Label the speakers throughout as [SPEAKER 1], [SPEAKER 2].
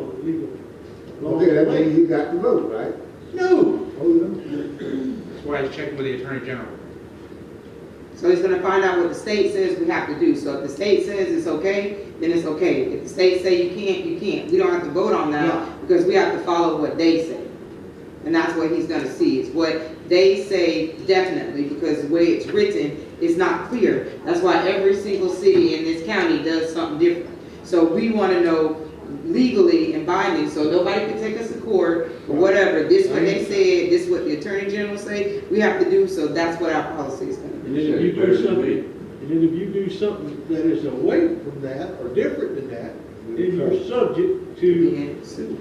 [SPEAKER 1] legal. laws
[SPEAKER 2] Okay, that
[SPEAKER 1] away.
[SPEAKER 2] means you got the vote, right?
[SPEAKER 1] No,
[SPEAKER 2] Oh, no.
[SPEAKER 1] that's why he's checking with the attorney general.
[SPEAKER 3] So he's gonna find out what the state says we have to do. So if the state says it's okay, then it's okay. If the state say you can't, you can't. We don't have to vote on
[SPEAKER 1] No.
[SPEAKER 3] that because we have to follow what they say. And that's what he's gonna see, is what they say definitely, because the way it's written is not clear. That's why every single city in this county does something different. So we wanna know legally and binding, so nobody can take us to court or whatever. This what they said, this what the attorney general say, we have to do, so that's what our policy is gonna be.
[SPEAKER 1] And then if you do something, and then if you do something that is away from that or different than that, then you're subject to
[SPEAKER 3] being sued.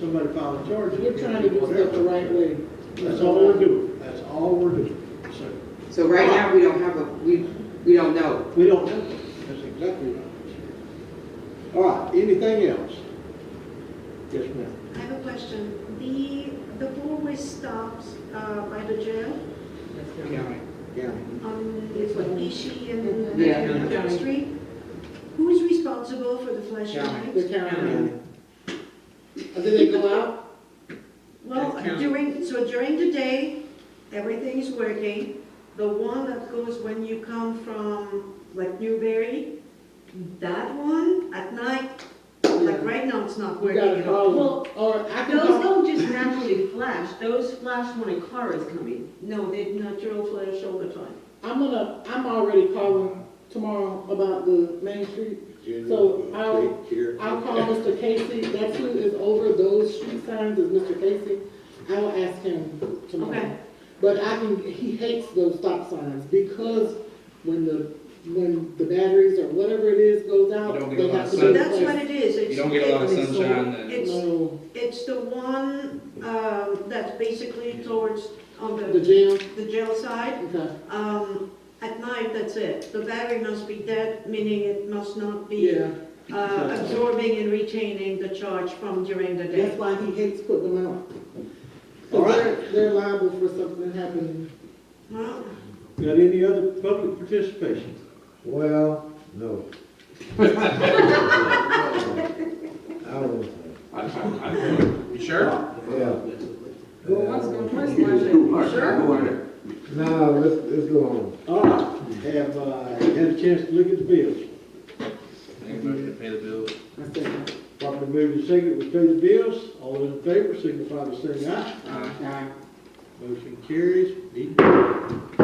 [SPEAKER 1] somebody filing charges.
[SPEAKER 4] We're trying to do stuff the right way.
[SPEAKER 1] That's all we're doing. That's all we're doing. So
[SPEAKER 3] So right now, we don't have a, we, we don't know.
[SPEAKER 1] we don't know. That's exactly right. All right, anything else? Yes, ma'am.
[SPEAKER 5] I have a question. The, the four-way stops uh, by the jail
[SPEAKER 1] County. County.
[SPEAKER 5] on, it's what, Nishi and
[SPEAKER 3] Yeah.
[SPEAKER 5] and Front Street? Who is responsible for the flashing
[SPEAKER 1] County.
[SPEAKER 4] The
[SPEAKER 5] lights?
[SPEAKER 4] county. Did they go out?
[SPEAKER 5] Well,
[SPEAKER 3] That's county.
[SPEAKER 5] during, so during the day, everything is working. The one that goes when you come from, like Newberry, that one at night, like right now, it's not
[SPEAKER 4] We
[SPEAKER 5] working
[SPEAKER 4] got a
[SPEAKER 5] at all.
[SPEAKER 4] problem.
[SPEAKER 6] Well,
[SPEAKER 4] Or I can
[SPEAKER 6] Those
[SPEAKER 4] talk.
[SPEAKER 6] don't just naturally flash, those flash when a car is coming.
[SPEAKER 5] No, they natural flash all the time.
[SPEAKER 4] I'm gonna, I'm already calling tomorrow about the Main Street. So I'll, I'll call Mr. Casey. That's who is over those street signs is Mr. Casey. I will ask him tomorrow.
[SPEAKER 5] Okay.
[SPEAKER 4] But I can, he hates those stop signs because when the, when the batteries or whatever it is goes
[SPEAKER 7] You
[SPEAKER 4] out,
[SPEAKER 7] don't get
[SPEAKER 4] they
[SPEAKER 7] a lot
[SPEAKER 4] have
[SPEAKER 7] of
[SPEAKER 4] to
[SPEAKER 7] sun.
[SPEAKER 4] be
[SPEAKER 5] That's what it
[SPEAKER 4] replaced.
[SPEAKER 5] is.
[SPEAKER 7] You
[SPEAKER 5] It's-
[SPEAKER 7] don't get a lot of
[SPEAKER 4] It's-
[SPEAKER 7] sunshine then.
[SPEAKER 5] It's,
[SPEAKER 4] No,
[SPEAKER 5] It's the one um, that's basically towards, on
[SPEAKER 4] the
[SPEAKER 5] the,
[SPEAKER 4] jail,
[SPEAKER 5] the jail side.
[SPEAKER 4] okay,
[SPEAKER 5] Um, At night, that's it. The battery must be dead, meaning it must not be
[SPEAKER 4] yeah.
[SPEAKER 5] uh, absorbing and retaining the charge from during the
[SPEAKER 4] That's
[SPEAKER 5] day.
[SPEAKER 4] why he hates putting them out.
[SPEAKER 1] All
[SPEAKER 4] Cause they're, they're liable for something happening.
[SPEAKER 5] Well,
[SPEAKER 1] Got any other public participation?
[SPEAKER 2] Well, no. I was,
[SPEAKER 7] You sure?
[SPEAKER 2] yeah.
[SPEAKER 3] Well, what's going, what's
[SPEAKER 2] No, let's, let's go on.
[SPEAKER 1] All right, have, uh, had a chance to look at the bills.
[SPEAKER 7] Make a motion to pay the bills.
[SPEAKER 4] I said,
[SPEAKER 1] Properly moved and seconded, we pay the bills, all those in favor signify by saying aye.
[SPEAKER 7] Aye.
[SPEAKER 4] nah.
[SPEAKER 1] Motion carries, Need-